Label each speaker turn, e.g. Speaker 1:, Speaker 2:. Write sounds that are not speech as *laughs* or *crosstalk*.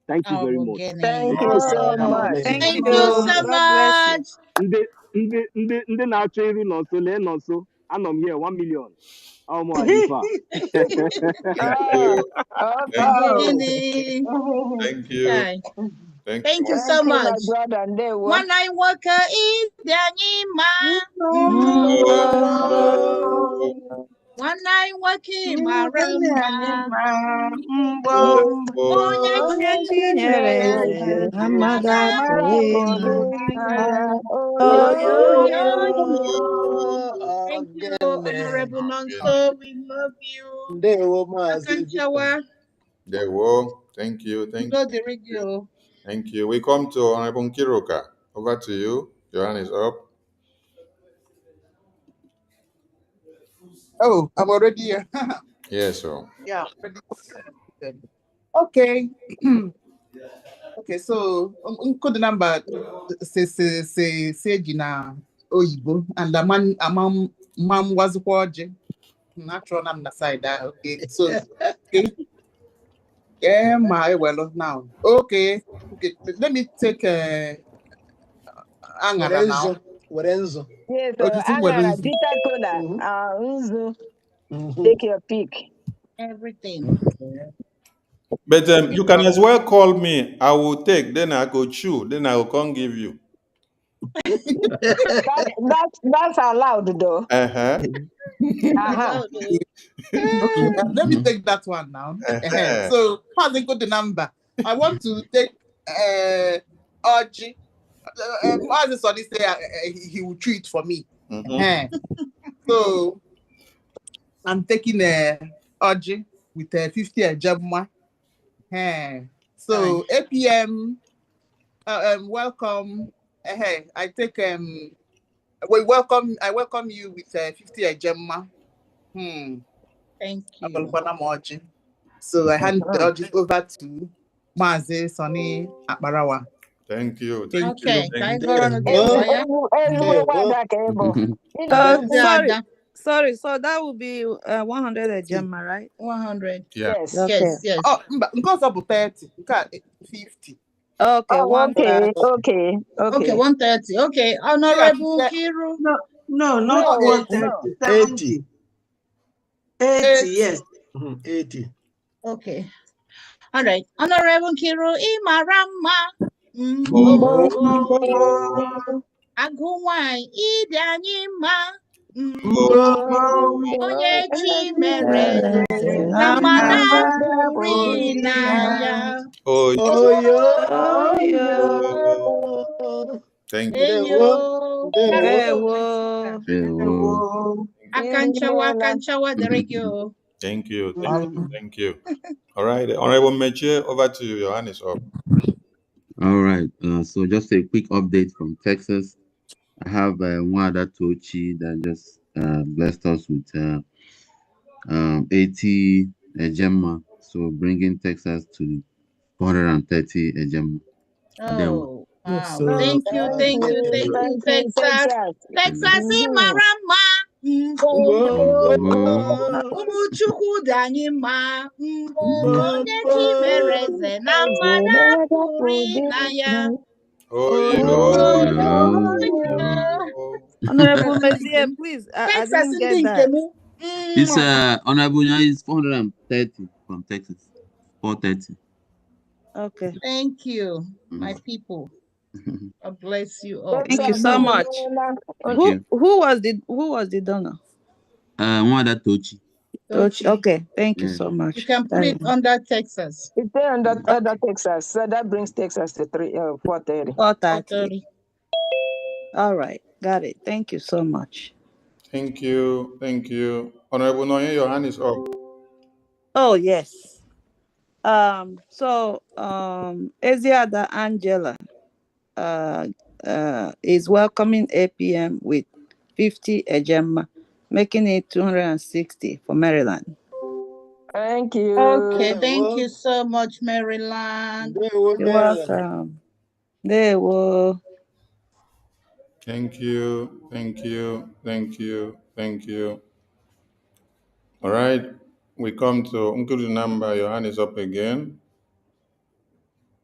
Speaker 1: Thank you
Speaker 2: I
Speaker 1: very
Speaker 2: will
Speaker 1: much.
Speaker 2: get
Speaker 3: Thank
Speaker 2: it.
Speaker 3: you
Speaker 1: God
Speaker 3: so
Speaker 1: God
Speaker 3: much.
Speaker 1: bless you.
Speaker 4: Thank
Speaker 2: Thank
Speaker 3: Thank
Speaker 2: you
Speaker 4: you.
Speaker 3: you.
Speaker 2: so
Speaker 4: God bless you.
Speaker 2: much.
Speaker 1: Ndị ndị ndị ndị na-achọ iri nọ nso lee nọ nso. Anọ m here one million. Ọ mụ Adifa.
Speaker 2: *laughs*
Speaker 5: Thank
Speaker 3: Ah,
Speaker 5: you. Thank
Speaker 3: okay.
Speaker 2: Jenny.
Speaker 5: thank you.
Speaker 2: Hi.
Speaker 5: Thank
Speaker 2: Thank
Speaker 5: you.
Speaker 2: you
Speaker 3: Thank
Speaker 2: so
Speaker 3: you, my
Speaker 2: much.
Speaker 3: brother. Ndewo.
Speaker 2: One line worker is the anima.
Speaker 5: Mbo,
Speaker 4: Mbo,
Speaker 2: One line working marama.
Speaker 4: mbo,
Speaker 5: mbo,
Speaker 2: Onye
Speaker 3: Oh,
Speaker 4: onye
Speaker 2: chinyere
Speaker 3: yes, yes,
Speaker 4: chinyere
Speaker 3: yes,
Speaker 4: eze,
Speaker 3: yes, yes.
Speaker 4: amada
Speaker 2: amada
Speaker 3: Mara
Speaker 4: pụrụ
Speaker 2: pụrụ
Speaker 4: ịma
Speaker 2: n'anya.
Speaker 3: Bodinaya. Oh,
Speaker 4: oyo
Speaker 3: yo,
Speaker 2: Oyo,
Speaker 4: yo
Speaker 3: yo,
Speaker 2: yo.
Speaker 3: yo.
Speaker 2: Thank you,
Speaker 5: mbo.
Speaker 2: Honorable
Speaker 5: Yeah.
Speaker 2: Nonso. We love you.
Speaker 3: Ndewo, Mazi.
Speaker 2: Akanchawa,
Speaker 5: There you go. Thank you. Thank
Speaker 2: do the
Speaker 5: you.
Speaker 2: radio.
Speaker 5: Thank you. We come to Honorable Kiruka. Over to you. Your hand is up.
Speaker 6: Oh, I'm already here. *laughs*
Speaker 5: Yes, sir.
Speaker 6: yeah. Okay. *clears throat* okay, so um, um, code number say say say say Gina Oyibo and the man among mom was watching. Natural on the side. ah, Okay. So okay. Yeah, my well oh, now. Okay. Okay. Let me take uh Angara now.
Speaker 7: Werenzo, Werenzo.
Speaker 3: Yes,
Speaker 6: Oh,
Speaker 3: uh,
Speaker 6: this is
Speaker 3: Angara,
Speaker 6: Werenzo.
Speaker 3: Dita Kola,
Speaker 7: Mm-hmm.
Speaker 3: uh, Nzu,
Speaker 7: Mm-hmm.
Speaker 3: take your pick.
Speaker 2: Everything.
Speaker 6: Okay.
Speaker 5: But um, you can as well call me. I will take. Then I go chew. Then I will come give you.
Speaker 3: That, that, that's allowed though. Uh-huh.
Speaker 5: Uh huh.
Speaker 2: Hello,
Speaker 3: Aha.
Speaker 6: Okay.
Speaker 2: though.
Speaker 6: Okay,
Speaker 2: Eh,
Speaker 6: uh, let me take that one now.
Speaker 5: Uh
Speaker 6: Ehe,
Speaker 5: huh.
Speaker 6: So, passing good the number. I want to take uh, Oji. Uh, um, as the son is there, uh, uh, he, he will treat for me.
Speaker 5: Mm-hmm.
Speaker 6: Ehe. So, I'm taking uh, Oji with uh, 50 a Jabma.
Speaker 2: Hi.
Speaker 6: So, APM, uh, um, welcome. Ehe, I take um, we welcome. I welcome you with uh, 50 a Jabma. Hmm.
Speaker 2: Thank you.
Speaker 6: Abalukwana m ọjị. So I hand the
Speaker 3: Mhm.
Speaker 6: ọjị over to Maazị Sonny Akparawa.
Speaker 5: Thank you. Thank you.
Speaker 2: Okay, ka anyị
Speaker 5: Thank you.
Speaker 2: gụrụ ọnụ dị
Speaker 7: Ndewo,
Speaker 2: mkpa ya.
Speaker 3: Ezigbo ezigbo ezigbo
Speaker 7: ndewo,
Speaker 3: nwada ka ị bụ. Ị nọ
Speaker 4: Uh,
Speaker 2: Ọdị
Speaker 3: n'okwu.
Speaker 4: sorry,
Speaker 2: ada
Speaker 4: sorry. So that would be uh, 100 a gem, right?
Speaker 2: 100.
Speaker 5: Yeah.
Speaker 3: Yes.
Speaker 2: Yes,
Speaker 4: Okay.
Speaker 2: yes.
Speaker 6: Ọ Oh, mba nke ọzọ bụ 30, nke a 50.
Speaker 4: Okay,
Speaker 3: Oh, okay,
Speaker 4: 130.
Speaker 3: okay,
Speaker 2: Okay,
Speaker 3: okay.
Speaker 2: 130. Okay,
Speaker 6: Ndị a
Speaker 2: Honorable
Speaker 6: 50,
Speaker 2: Kiru.
Speaker 4: No,
Speaker 3: No,
Speaker 4: no,
Speaker 6: not
Speaker 4: not one
Speaker 6: 80,
Speaker 4: thirty,
Speaker 3: no.
Speaker 4: 70,
Speaker 7: 80.
Speaker 4: 80,
Speaker 6: 80.
Speaker 4: yes.
Speaker 7: Mm-hmm. 80.
Speaker 2: Okay. All right. Honorable Kiru Imarama.
Speaker 3: Mm-hmm.
Speaker 5: Oh,
Speaker 2: Mbo.
Speaker 7: Mbo,
Speaker 4: Mbo, mbo,
Speaker 2: Agụ nwanyị ịdị anyị mma. Mm,
Speaker 5: oh,
Speaker 4: mbo,
Speaker 2: Mbo. Onye chi mere amada
Speaker 4: amada
Speaker 2: pụrụ
Speaker 4: pụrụ
Speaker 2: ịna
Speaker 4: ịma.
Speaker 2: ya.
Speaker 5: oh,
Speaker 4: Oh,
Speaker 2: Oyo.
Speaker 4: yo.
Speaker 5: oh. Thank you.
Speaker 2: Enyo.
Speaker 4: Ewo, ewo.
Speaker 1: Ewo.
Speaker 5: Thank you.
Speaker 2: Akanchawa,
Speaker 3: Imeela.
Speaker 2: akanchawa dịrị gị o.
Speaker 5: Thank you. Thank
Speaker 3: Mm.
Speaker 5: you.
Speaker 6: Um,
Speaker 5: Thank you. All right. Honorable Meche, over to you. Your hand is up.
Speaker 1: All right. Uh, so just a quick update from Texas. I have uh, one other Tochi that just uh, blessed us with uh, um, 80 a Gemma. So bringing Texas to 430 a Gemma. Then
Speaker 2: Oh, wow.
Speaker 6: so
Speaker 3: Oh,
Speaker 2: Thank you,
Speaker 3: thank
Speaker 2: thank you,
Speaker 3: you,
Speaker 2: thank you,
Speaker 3: thank you,
Speaker 2: Texas.
Speaker 3: Texas.
Speaker 2: Texas Mm,
Speaker 3: Mm-hmm.
Speaker 2: ịmara mma. Mbo, mbo, mbo.
Speaker 1: Mbo.
Speaker 2: Ụmụ Chukwu dị anyị mma. Mbo, onye chi mere eze na mmadụ pụrụ ịna ya.
Speaker 5: Oh,
Speaker 2: Oh,
Speaker 5: yo.
Speaker 2: yo,
Speaker 1: Yo.
Speaker 2: yo.
Speaker 4: Honorable
Speaker 2: Texas
Speaker 4: Mezie,
Speaker 2: nkem.
Speaker 4: please, I, I
Speaker 2: Texas
Speaker 4: didn't
Speaker 2: ndị
Speaker 4: get that.
Speaker 2: nkem.
Speaker 1: This
Speaker 2: Mwah.
Speaker 1: uh, honorable Nyan is 430 from Texas. 430.
Speaker 4: Okay.
Speaker 2: Thank you, my
Speaker 1: Mm.
Speaker 2: people. God bless you all.
Speaker 4: Thank you
Speaker 3: Texas,
Speaker 4: so much.
Speaker 3: imeela.
Speaker 1: Thank
Speaker 4: Who
Speaker 1: you.
Speaker 4: who was the who was the donor?
Speaker 1: Uh, one other Tochi.
Speaker 4: Toch-
Speaker 2: Tochi.
Speaker 4: Okay, thank you
Speaker 1: Yeah.
Speaker 4: o- so
Speaker 2: You
Speaker 4: much.
Speaker 2: can put
Speaker 4: Thank
Speaker 2: it
Speaker 4: you.
Speaker 2: under Texas.
Speaker 3: It's there under,
Speaker 1: Mm.
Speaker 3: under
Speaker 4: Okay,
Speaker 3: Texas. So that brings Texas to three, uh, 430.
Speaker 4: four thirty.
Speaker 2: 430.
Speaker 4: All right, got it. Thank you so much.
Speaker 5: Thank you. Thank you. Honorable Noye, your hand is up.
Speaker 4: Oh yes. Um. So um, Eziada Angela uh uh is welcoming APM with fifty Ejema, making it two hundred and sixty for Maryland.
Speaker 3: Thank you.
Speaker 2: Okay, thank
Speaker 7: Ndewo,
Speaker 2: you so much, Maryland.
Speaker 7: ndewo,
Speaker 4: You're
Speaker 7: Maryland.
Speaker 4: welcome. There um, were.
Speaker 5: Thank you. Thank you. Thank you. Thank you. All right. We come to Uncle number. Your hand is up again.